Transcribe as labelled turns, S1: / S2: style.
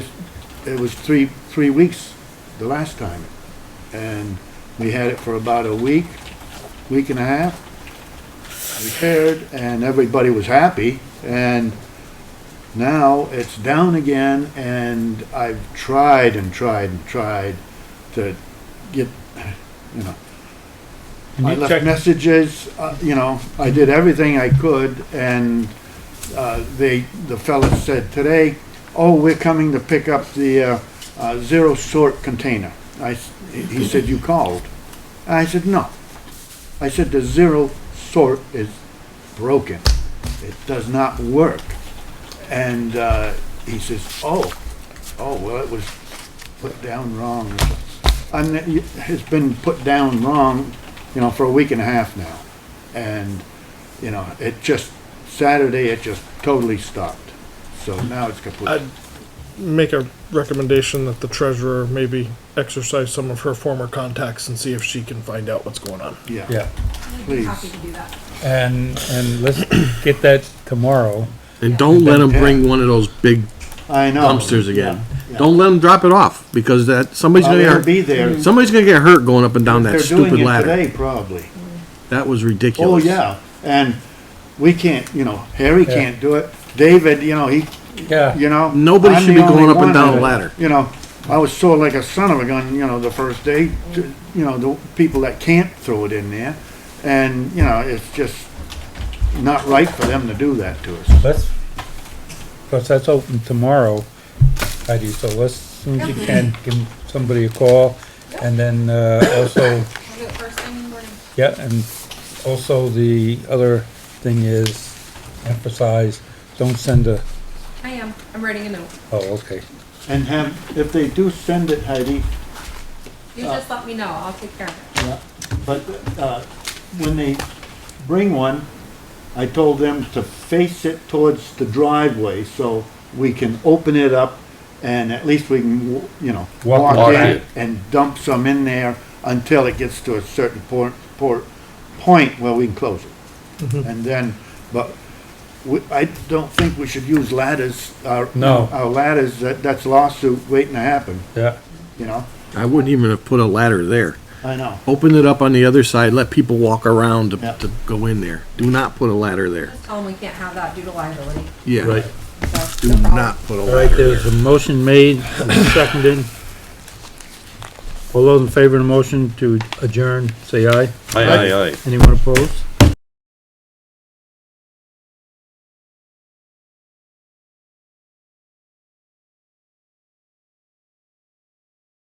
S1: it was three, three weeks the last time. And we had it for about a week, week and a half. Repaired and everybody was happy and now it's down again and I've tried and tried and tried to get, you know,
S2: And
S1: I
S2: you
S1: left
S2: checked-
S1: messages, uh, you know, I did everything I could and, uh, they, the fella said today, oh, we're coming to pick up the, uh, uh, zero sort container. I, s- he said, you called. I said, no. I said, the zero sort is broken. It does not work. And, uh, he says, oh, oh, well, it was put down wrong. And it- it's been put down wrong, you know, for a week and a half now. And, you know, it just, Saturday, it just totally stopped. So now it's
S3: I'd
S1: complete.
S3: make a recommendation that the treasurer maybe exercise some of her former contacts and see if she can find out what's going on.
S1: Yeah,
S2: Yeah,
S1: please.
S4: Happy to do that.
S2: and, and let's get that tomorrow.
S5: And don't let them
S1: Yeah.
S5: bring one of those big
S1: I know.
S5: dumpsters again.
S1: Oh, Yeah.
S5: Don't let them drop it off, because that, somebody's
S1: Well,
S5: gonna
S1: they'll be
S5: get,
S1: there.
S5: hurt- Mm-hmm. somebody's gonna get hurt going up and down that
S1: They're doing
S5: stupid
S1: it
S5: ladder.
S1: today, probably.
S5: That was
S1: Oh,
S5: ridiculous.
S1: yeah, and we can't, you know, Harry
S2: Yeah.
S1: can't do it, David, you know, he, you
S2: Yeah,
S1: know.
S5: Nobody
S1: I'm
S5: should
S1: the
S5: be going
S1: only
S5: up and
S1: one
S5: down a
S1: that-
S5: ladder.
S1: You know, I was sore like a son of a gun, you know, the first day, to- you know, the people that can't throw it in there, and, you know, it's just not right for them to do that to us.
S2: let's, because that's open tomorrow, Heidi, so let's, soon as you can, give somebody a call. And then, uh, also,
S4: I'll do it first thing in the morning.
S2: yeah, and also the other thing is emphasize, don't send a,
S4: I am, I'm writing a note.
S2: oh, okay.
S1: And have, if they do send it, Heidi,
S4: You just let me know, I'll take care of it.
S1: Yeah, but, uh, when they bring one, I told them to face it towards the driveway so we can open it up and at least we can, w- you know,
S2: Walk
S1: walk
S2: walk
S1: in
S2: it.
S1: and dump some in there until it gets to a certain point, por point where we can close it. And then, but we, I don't think we should use ladders, our,
S2: No.
S1: our ladders, that, that's lawsuit waiting to happen,
S2: Yeah,
S1: you know?
S5: I wouldn't even have put a ladder there.
S1: I know.
S5: Open it up on the other side, let people walk around to,
S1: Yeah.
S5: to go in there. Do not put a ladder there.
S4: Just tell them we can't have that due to liability,
S5: Yeah.
S2: right.
S4: so.
S5: Do
S4: no problem.
S5: not put a
S2: All right,
S5: ladder there.
S2: there's a motion made, and seconded. All those in favor of the motion to adjourn, say aye.
S6: Aye, aye, aye.
S2: Anyone opposed?